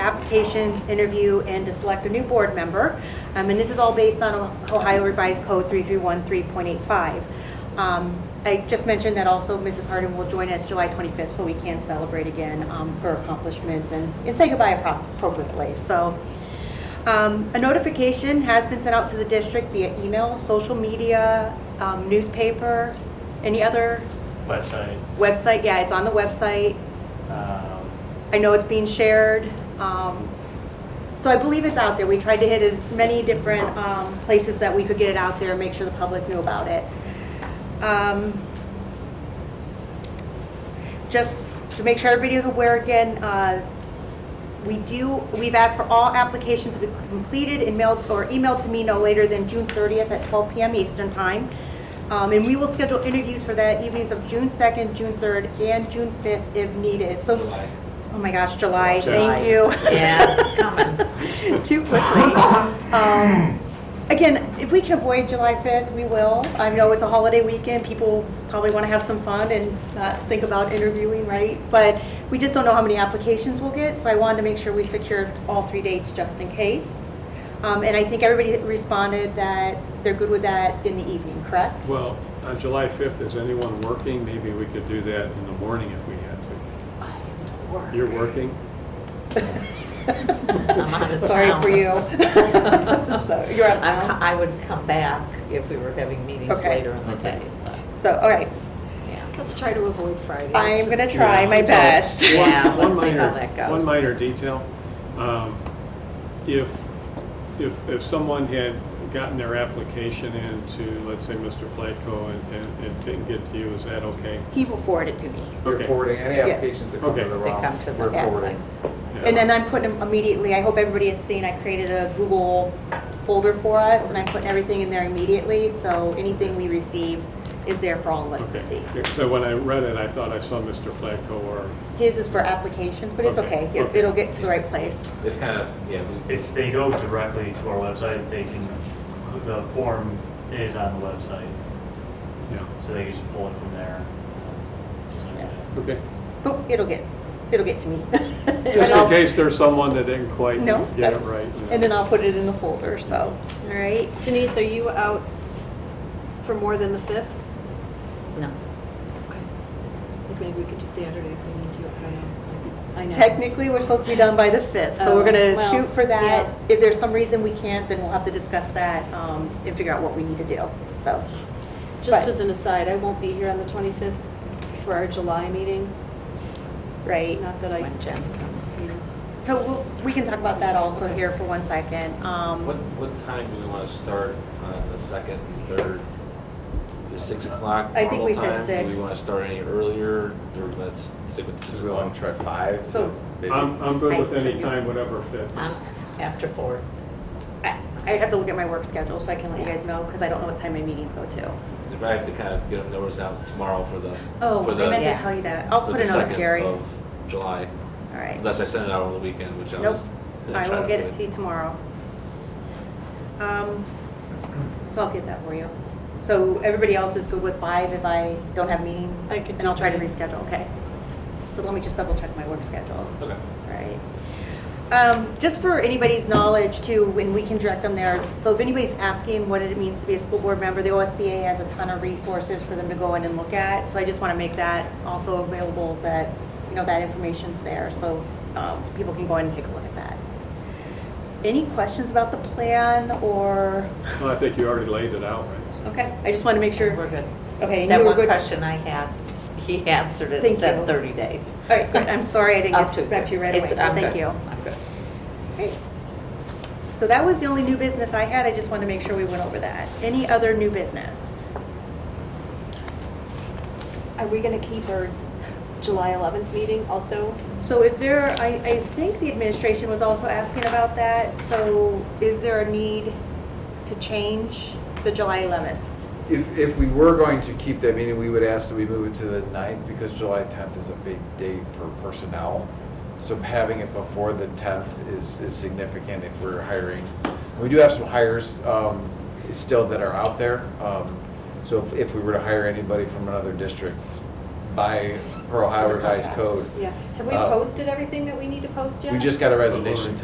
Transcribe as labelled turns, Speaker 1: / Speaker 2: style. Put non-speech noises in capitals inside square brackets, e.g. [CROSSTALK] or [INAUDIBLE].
Speaker 1: applications, interview, and to select a new board member. Um, And this is all based on Ohio Revised Code 3313.85. Um, I just mentioned that also Mrs. Harden will join us July 25th, so we can celebrate again um, her accomplishments and and say goodbye appro- appropriately. So um, A notification has been sent out to the district via email, social media, um, newspaper, any other
Speaker 2: website.
Speaker 1: website, yeah, it's on the website.
Speaker 2: Um,
Speaker 1: I know it's being shared. um, So I believe it's out there. We tried to hit as many different um, places that we could get it out there and make sure the public knew about it. Um, Just to make sure everybody is aware again, uh, we do, we've asked for all applications to be completed and mailed, or emailed to me no later than June 30th at 12 PM Eastern Time. Um, And we will schedule interviews for that evenings of June 2nd, June 3rd, and June 5th if needed. So
Speaker 3: July.
Speaker 1: Oh my gosh, July,
Speaker 2: July.
Speaker 1: thank you. [LAUGHS]
Speaker 4: Yeah, it's coming.
Speaker 1: Too quickly. Um, Again, if we can avoid July 5th, we will. I know it's a holiday weekend, people probably want to have some fun and not think about interviewing, right? But we just don't know how many applications we'll get, so I wanted to make sure we secured all three dates just in case. Um, And I think everybody responded that they're good with that in the evening, correct? [LAUGHS]
Speaker 5: Well, on July 5th, is anyone working? Maybe we could do that in the morning if we had to.
Speaker 4: I have to work.
Speaker 5: You're working?
Speaker 4: I'm out
Speaker 1: [LAUGHS]
Speaker 4: of
Speaker 1: Sorry
Speaker 4: town.
Speaker 1: for
Speaker 4: [LAUGHS]
Speaker 1: you. [LAUGHS] So, you're out of
Speaker 4: I'm
Speaker 1: town?
Speaker 4: co- I would come back if we were having meetings
Speaker 1: Okay.
Speaker 4: later in the
Speaker 5: Okay.
Speaker 4: day, but,
Speaker 1: So, all right,
Speaker 4: yeah.
Speaker 3: Let's try to avoid Friday.
Speaker 1: I am
Speaker 3: It's
Speaker 1: going to
Speaker 3: just-
Speaker 1: try my
Speaker 5: So,
Speaker 1: best.
Speaker 5: one-
Speaker 4: Yeah,
Speaker 5: one
Speaker 4: let's see how
Speaker 5: minor-
Speaker 4: that goes.
Speaker 5: One minor detail. Um, If, if, if someone had gotten their application in to, let's say, Mr. Platco and- and, and didn't get to you, is that okay?
Speaker 1: He will forward it to me.
Speaker 5: Okay.
Speaker 3: You're forwarding any
Speaker 1: Yeah.
Speaker 3: applications that come to
Speaker 5: Okay.
Speaker 3: the
Speaker 4: They
Speaker 3: ROM.
Speaker 4: come to the
Speaker 3: We're forwarding.
Speaker 4: place.
Speaker 5: Yeah.
Speaker 1: And then I'm putting them immediately, I hope everybody has seen, I created a Google folder for us, and I'm putting everything in there immediately, so anything we receive is there for all of us to see.
Speaker 5: Okay. So when I read it, I thought I saw Mr. Platco or,
Speaker 1: His is for applications, but it's
Speaker 5: Okay,
Speaker 1: okay, It-
Speaker 5: okay.
Speaker 1: it'll get to the right place.
Speaker 6: They've kind of, yeah, we-
Speaker 2: If they go directly to our website, they can, the form is on the website,
Speaker 5: yeah,
Speaker 2: so they can just pull it from there. So, yeah.
Speaker 5: okay.
Speaker 1: Oop, it'll get, it'll get to me. [LAUGHS] And
Speaker 5: Just in
Speaker 1: I'll-
Speaker 5: case there's someone that didn't quite
Speaker 1: No,
Speaker 5: get it
Speaker 1: that's,
Speaker 5: right.
Speaker 1: and then I'll put it in the folder, so, all right.
Speaker 3: Denise, are you out for more than the 5th?
Speaker 4: No.
Speaker 3: Okay. Like maybe we could do Saturday if we need to, I don't know. I know.
Speaker 1: Technically, we're supposed to be done by the 5th, so we're
Speaker 3: Oh,
Speaker 1: gonna
Speaker 3: well,
Speaker 1: shoot for that.
Speaker 3: yeah.
Speaker 1: If there's some reason we can't, then we'll have to discuss that, um, and figure out what we need to do, so.
Speaker 3: Just
Speaker 1: but-
Speaker 3: as an aside, I won't be here on the 25th for our July meeting,
Speaker 1: Right.
Speaker 3: not that I,
Speaker 4: When Jen's coming.
Speaker 3: you know.
Speaker 1: So we'll- we can talk about that also
Speaker 3: Okay.
Speaker 1: here for one second. Um,
Speaker 6: what, what time do we want to start on the second, and third? The six o'clock
Speaker 1: I think we
Speaker 6: normal
Speaker 1: said
Speaker 6: time? Do
Speaker 1: six.
Speaker 6: we want to start any earlier, or let's stick with six
Speaker 7: Because we want
Speaker 6: o'clock?
Speaker 7: to try five.
Speaker 1: So-
Speaker 7: to maybe-
Speaker 5: I'm, I'm good with
Speaker 1: I-
Speaker 5: any time, whatever fits.
Speaker 4: I'm after four.
Speaker 1: I- I'd have to look at my work schedule so I can let you guys know, because I don't know what time my meetings go to.
Speaker 6: If I have to kind of get a notice out tomorrow for the,
Speaker 1: Oh,
Speaker 6: for
Speaker 1: I meant
Speaker 6: the,
Speaker 1: to
Speaker 4: yeah.
Speaker 1: tell you that. I'll
Speaker 6: for
Speaker 1: put it
Speaker 6: the
Speaker 1: on Gary.
Speaker 6: second
Speaker 1: All
Speaker 6: of July,
Speaker 1: right.
Speaker 6: unless I send it out over the weekend, which I
Speaker 1: Nope.
Speaker 6: was. gonna
Speaker 1: I
Speaker 6: try
Speaker 1: will
Speaker 6: to
Speaker 1: get it
Speaker 6: avoid.
Speaker 1: to you tomorrow. Um, So I'll get that for you. So everybody else is good with five if I don't have meetings?
Speaker 3: I could
Speaker 1: And I'll
Speaker 3: do
Speaker 1: try to
Speaker 3: five.
Speaker 1: reschedule, okay? So let me just double check my work schedule.
Speaker 6: Okay.
Speaker 1: Right. Um, Just for anybody's knowledge too, when we can direct them there, so if anybody's asking what it means to be a school board member, the OSBA has a ton of resources for them to go in and look at. So I just want to make that also available, that, you know, that information's there, so um, people can go in and take a look at that. Any questions about the plan or,
Speaker 5: Well, I think you already laid it out, right? So-
Speaker 1: okay, I just want to make sure.
Speaker 4: We're good.
Speaker 1: Okay. and you
Speaker 4: That
Speaker 1: were
Speaker 4: one
Speaker 1: good-
Speaker 4: question I had, he answered it
Speaker 1: Thank
Speaker 4: and
Speaker 1: you.
Speaker 4: said 30 days.
Speaker 1: All right, good. I'm sorry I
Speaker 4: Up
Speaker 1: didn't
Speaker 4: to.
Speaker 1: get back to you right away,
Speaker 4: It's-
Speaker 1: so
Speaker 4: I'm
Speaker 1: thank
Speaker 4: good.
Speaker 1: you.
Speaker 4: I'm good.
Speaker 1: Great. So that was the only new business I had. I just wanted to make sure we went over that. Any other new business?
Speaker 3: Are we going to keep our July 11th meeting also?
Speaker 1: So is there, I, I think the administration was also asking about that. So is there a need to change the July 11th?
Speaker 7: If, if we were going to keep that meeting, we would ask that we move it to the ninth because July tenth is a big date for personnel. So having it before the tenth is, is significant if we're hiring. We do have some hires, um, still that are out there. Um, so if, if we were to hire anybody from another district by, per Ohio
Speaker 3: As a
Speaker 7: Revised
Speaker 3: context.
Speaker 7: Code,
Speaker 3: Yeah. Have we
Speaker 7: Uh,
Speaker 3: posted everything that we need to post yet?
Speaker 7: we just got a resignation